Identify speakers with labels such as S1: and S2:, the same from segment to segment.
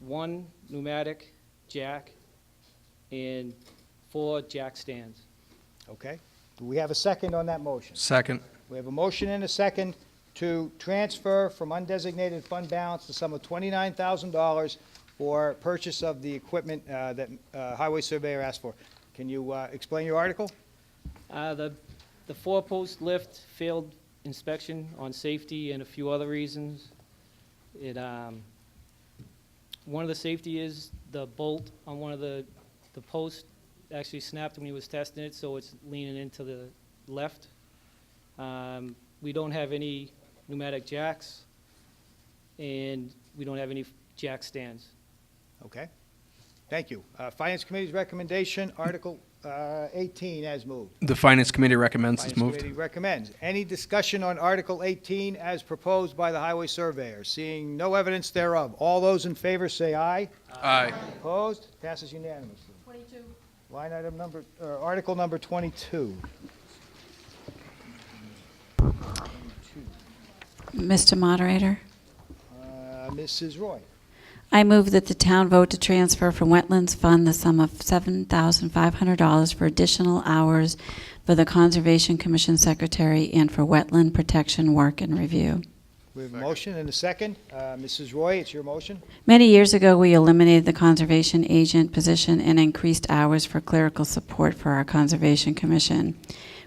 S1: one pneumatic jack and four jack stands.
S2: Okay? Do we have a second on that motion?
S3: Second.
S2: We have a motion and a second to transfer from undesignated fund balance the sum of twenty-nine thousand dollars for purchase of the equipment uh, that uh, Highway Surveyor asked for. Can you uh, explain your article?
S1: Uh, The, the four-post lift failed inspection on safety and a few other reasons. It, um, one of the safety is the bolt on one of the, the posts actually snapped when he was testing it, so it's leaning into the left. Um, We don't have any pneumatic jacks, and we don't have any jack stands.
S2: Okay? Thank you. Uh, Finance Committee's recommendation, Article uh, eighteen as moved.
S3: The Finance Committee recommends it's
S2: Finance
S3: moved.
S2: Committee recommends. Any discussion on Article 18 as proposed by the Highway Surveyor? Seeing no evidence thereof, all those in favor say aye.
S3: Aye.
S2: Opposed? Passes unanimously.
S4: 22.
S2: Line item number, or Article number 22.
S4: Mr. Moderator,
S2: Uh, Mrs. Roy,
S4: I move that the town vote to transfer from Wetlands Fund the sum of $7,500 for additional hours for the Conservation Commission Secretary and for wetland protection work and review.
S2: we have a motion and a second. Uh, Mrs. Roy, it's your motion.
S4: Many years ago, we eliminated the conservation agent position and increased hours for clerical support for our Conservation Commission.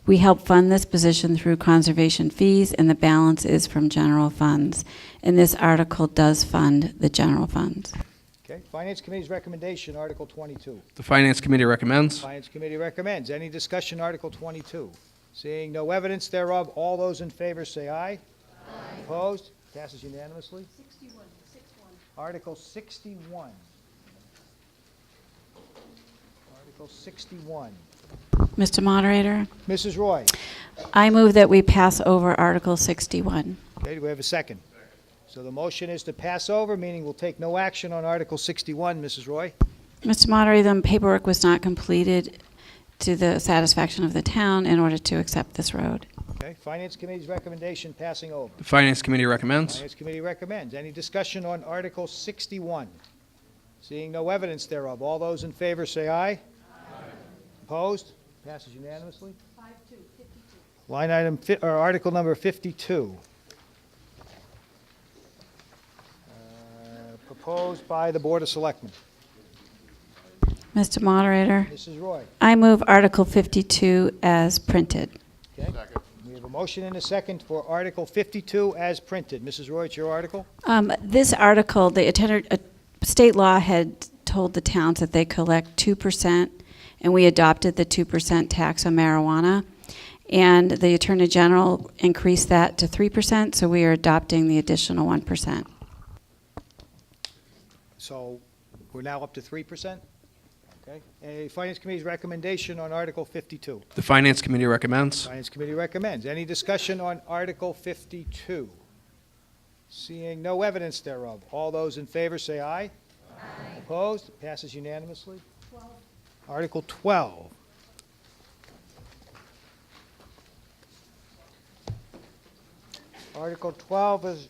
S4: We help fund this position through conservation fees, and the balance is from general funds. And this article does fund the general funds.
S2: Okay. Finance Committee's recommendation, Article 22.
S3: The Finance Committee recommends.
S2: Finance Committee recommends. Any discussion, Article 22? Seeing no evidence thereof, all those in favor say aye. Opposed? Passes unanimously. 61, Article 61. Article 61.
S4: Mr. Moderator,
S2: Mrs. Roy?
S4: I move that we pass over Article 61.
S2: Okay, do we have a second? So the motion is to pass over, meaning we'll take no action on Article 61, Mrs. Roy.
S4: Mr. Moderator, the paperwork was not completed to the satisfaction of the town in order to accept this road.
S2: Okay, Finance Committee's recommendation passing over.
S3: The Finance Committee recommends.
S2: Finance Committee recommends. Any discussion on Article 61? Seeing no evidence thereof, all those in favor say aye. Opposed? Passes unanimously. 52. Line item, fi- or Article number 52. Uh, Proposed by the Board of Selectmen.
S4: Mr. Moderator,
S2: Mrs. Roy?
S4: I move Article 52 as printed.
S2: Okay. We have a motion and a second for Article 52 as printed. Mrs. Roy, it's your article?
S4: Um, This article, the attender- uh, state law had told the towns that they collect 2%, and we adopted the 2% tax on marijuana. And the Attorney General increased that to 3%, so we are adopting the additional 1%.
S2: So we're now up to 3%? Okay. A Finance Committee's recommendation on Article 52.
S3: The Finance Committee recommends.
S2: Finance Committee recommends. Any discussion on Article 52? Seeing no evidence thereof, all those in favor say aye. Aye. Opposed? Passes unanimously. Article 12. Article 12 is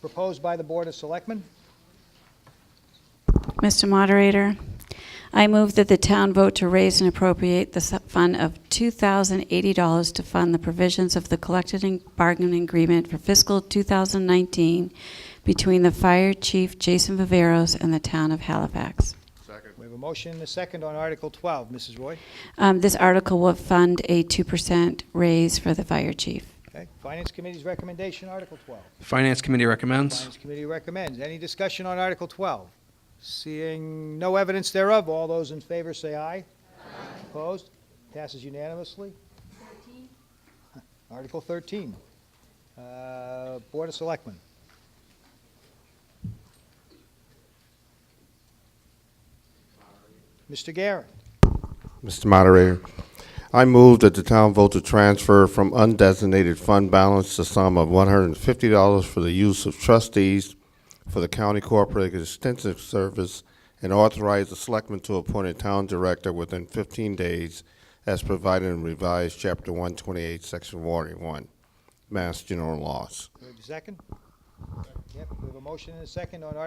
S2: proposed by the Board of Selectmen.
S4: Mr. Moderator, I move that the town vote to raise and appropriate the su- fund of $2,080 to fund the provisions of the collective and bargaining agreement for fiscal 2019 between the Fire Chief Jason Viveros and the Town of Halifax.
S2: We have a motion and a second on Article 12. Mrs. Roy?
S4: Um, This article will fund a 2% raise for the Fire Chief.
S2: Okay. Finance Committee's recommendation, Article 12.
S3: The Finance Committee recommends.
S2: Finance Committee recommends. Any discussion on Article 12? Seeing no evidence thereof, all those in favor say aye. Opposed? Passes unanimously. Article 13, Uh, Board of Selectmen. Mr. Garrett,
S5: Mr. Moderator, I move that the town vote to transfer from undesignated fund balance the sum of one hundred and fifty dollars for the use of trustees for the county cooperative extensive service and authorize the selectman to appoint a town director within fifteen days as provided in revised chapter one twenty-eight, section forty-one, Mass General Laws.
S2: we have a second? Yep, we have a motion and a second on